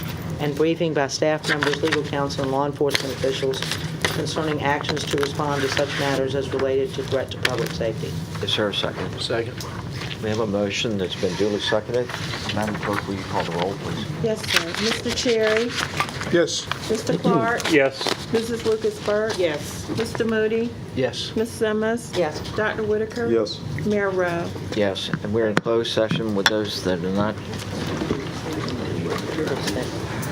and briefing by staff members, legal counsel, and law enforcement officials concerning actions to respond to such matters as related to threat to public safety. Is there a second? Second. We have a motion that's been duly seconded. Madam Clerk, will you call the roll, please? Yes, sir. Mr. Cherry? Yes. Mr. Clark? Yes. Mrs. Lucas Burke? Yes. Mr. Moody? Yes. Ms. Simmons? Yes. Dr. Whitaker? Yes. Mayor Rowe? Yes, and we're in closed session with those that are not